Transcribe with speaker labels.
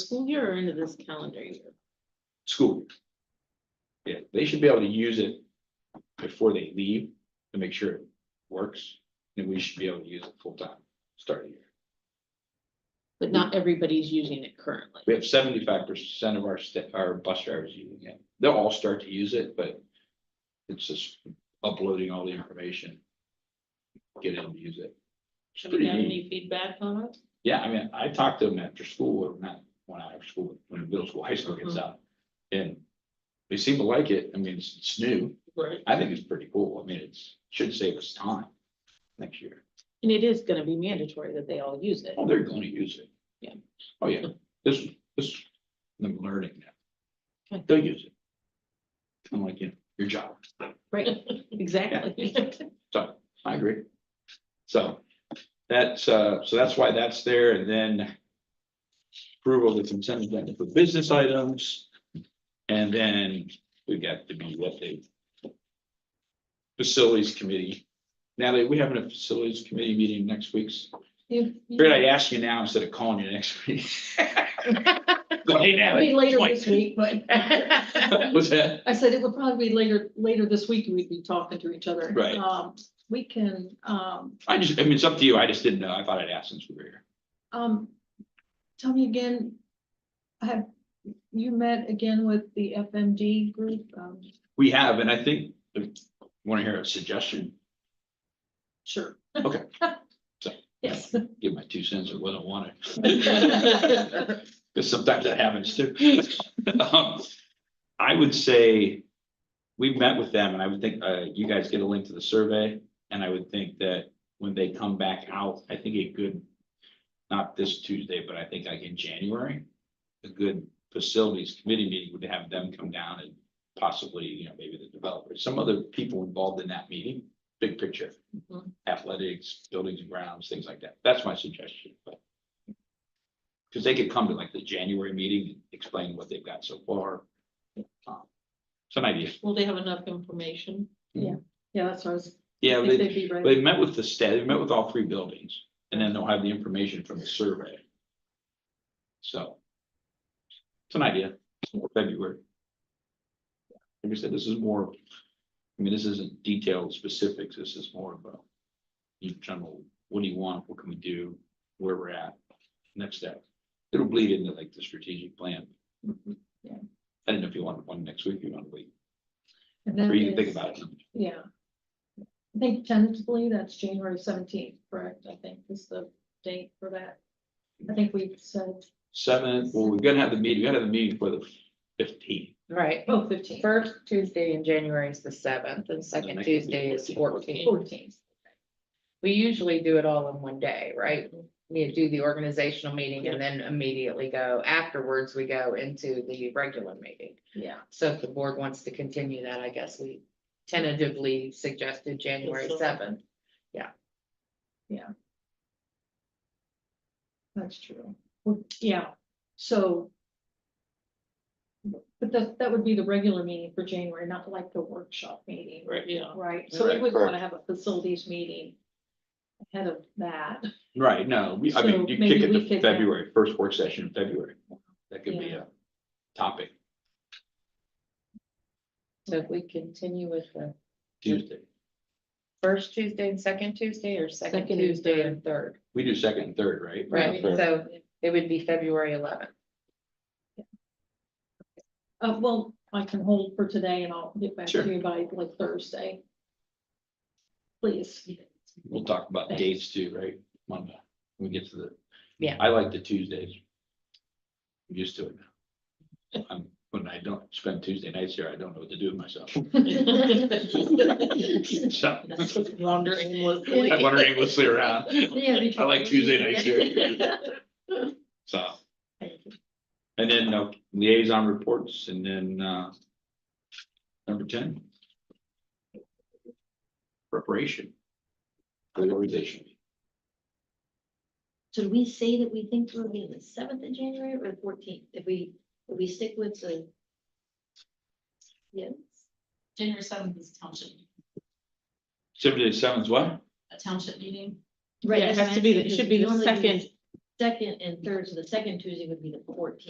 Speaker 1: school year or into this calendar year?
Speaker 2: school. Yeah, they should be able to use it before they leave to make sure it works, and we should be able to use it full time, starting here.
Speaker 1: But not everybody's using it currently.
Speaker 2: We have seventy-five percent of our sta- our bus drivers using it. They'll all start to use it, but it's just uploading all the information. Get them to use it. It's
Speaker 1: Have
Speaker 2: pretty
Speaker 1: we got
Speaker 2: neat.
Speaker 1: any feedback on it?
Speaker 2: Yeah, I mean, I talked to them after school, or not, when I was school, when middle school, high school gets
Speaker 1: Mhm.
Speaker 2: out. And they seem to like it. I mean, it's, it's new.
Speaker 1: Right.
Speaker 2: I think it's pretty cool. I mean, it's, should save us time next year.
Speaker 1: And it is gonna be mandatory that they all use it.
Speaker 2: Oh, they're gonna use it.
Speaker 1: Yeah.
Speaker 2: Oh, yeah. This, this, I'm learning now.
Speaker 1: Okay.
Speaker 2: They'll use it. I'm like, you know, your job.
Speaker 1: Right, exactly.
Speaker 2: So I agree. So that's, uh, so that's why that's there and then approval of the consent agenda for business items. And then we got to be what they facilities committee. Natalie, we having a facilities committee meeting next week. Figured I'd ask you now instead of calling you next week. Hey, Natalie.
Speaker 3: Be later this week, but
Speaker 2: What's that?
Speaker 3: I said it would probably be later, later this week, we'd be talking to each other.
Speaker 2: Right.
Speaker 3: Um, we can, um,
Speaker 2: I just, I mean, it's up to you. I just didn't know. I thought I'd ask since we were here.
Speaker 3: um, tell me again, have you met again with the FMD group? Um,
Speaker 2: We have, and I think, want to hear a suggestion?
Speaker 3: sure.
Speaker 2: Okay. So.
Speaker 3: Yes.
Speaker 2: give my two cents or what I wanted.
Speaker 3: Okay.
Speaker 2: Because sometimes that happens too. Um, I would say we've met with them and I would think, uh, you guys get a link to the survey. And I would think that when they come back out, I think a good, not this Tuesday, but I think like in January, a good facilities committee meeting would have them come down and possibly, you know, maybe the developers, some other people involved in that meeting, big picture
Speaker 3: Mhm.
Speaker 2: athletics, buildings and grounds, things like that. That's my suggestion, but. Cause they could come to like the January meeting, and explain what they've got so far. Um, Some idea.
Speaker 1: Will they have enough information?
Speaker 3: Yeah, that's what I was.
Speaker 2: Yeah,
Speaker 3: I think
Speaker 2: they,
Speaker 3: they'd be ready.
Speaker 2: they met with the state, they met with all three buildings and then they'll have the information from the survey. So. It's an idea, for February. Like I said, this is more, I mean, this isn't detailed specifics, this is more about. In general, what do you want, what can we do, where we're at, next step. It'll bleed into like the strategic plan.
Speaker 3: Mhm.
Speaker 2: I don't know if you want one next week, you want to wait,
Speaker 3: And
Speaker 2: or
Speaker 3: that
Speaker 2: you can think
Speaker 3: is-
Speaker 2: about it.
Speaker 3: Yeah. I think tentatively that's January seventeenth, correct? I think is the date for that. I think we said,
Speaker 2: Seventh, well, we're gonna have the meeting, we gotta have the meeting for the fifteenth.
Speaker 4: Right,
Speaker 3: oh, fifteenth.
Speaker 4: first Tuesday in January is the seventh and second
Speaker 2: next is
Speaker 4: Tuesday is
Speaker 2: 14th.
Speaker 4: fourteen.
Speaker 3: Fourteenth.
Speaker 4: We usually do it all in one day, right? We do the organizational meeting and then immediately go afterwards, we go into the regular meeting.
Speaker 3: Yeah,
Speaker 4: So if the board wants to continue that, I guess we tentatively suggested January
Speaker 1: Yes, sir.
Speaker 4: seventh.
Speaker 3: that's true. Well, Yeah, so. But that, that would be the regular meeting for January, not like the workshop meeting,
Speaker 2: Right.
Speaker 1: Yeah.
Speaker 3: right? So we
Speaker 2: Right,
Speaker 3: would
Speaker 2: correct.
Speaker 3: want to have a facilities meeting ahead of that.
Speaker 2: Right, no, we, I
Speaker 3: So
Speaker 2: mean, you kick
Speaker 3: maybe
Speaker 2: it
Speaker 3: we
Speaker 2: to
Speaker 3: could have-
Speaker 2: February, first work session in February. That could be
Speaker 3: Yeah.
Speaker 2: a topic
Speaker 4: So if we continue with the
Speaker 2: Tuesday.
Speaker 4: first Tuesday and second Tuesday or second
Speaker 1: Second and
Speaker 4: Tuesday and third,
Speaker 2: We do second and third, right?
Speaker 4: right?
Speaker 2: Okay.
Speaker 4: So it would be February eleventh.
Speaker 3: Uh, well, I can hold for today and I'll get back
Speaker 2: Sure.
Speaker 3: to you by like Thursday. Please.
Speaker 2: We'll talk about
Speaker 3: Thanks.
Speaker 2: dates too, right? Monday, when we get to the.
Speaker 4: Yeah.
Speaker 2: I like the Tuesdays. I'm Used to it now. Um, When I don't spend Tuesday nights here, I don't know what to do with myself. So,
Speaker 1: Wander aimlessly.
Speaker 2: I wander aimlessly around. I like Tuesday nights here, so. And then uh, liaison reports and then uh. Number ten. Preparation. for the Organization.
Speaker 5: Should we say that we think we'll be the seventh of January or the fourteenth? If we, if we stick with the. Yes,
Speaker 6: January seventh is township,
Speaker 2: Seventy to seven's what?
Speaker 6: a township meeting.
Speaker 1: Yeah, it has to be the- it should be the
Speaker 5: Normally we-
Speaker 1: second
Speaker 5: Second and third, so the second Tuesday would be the fourteenth.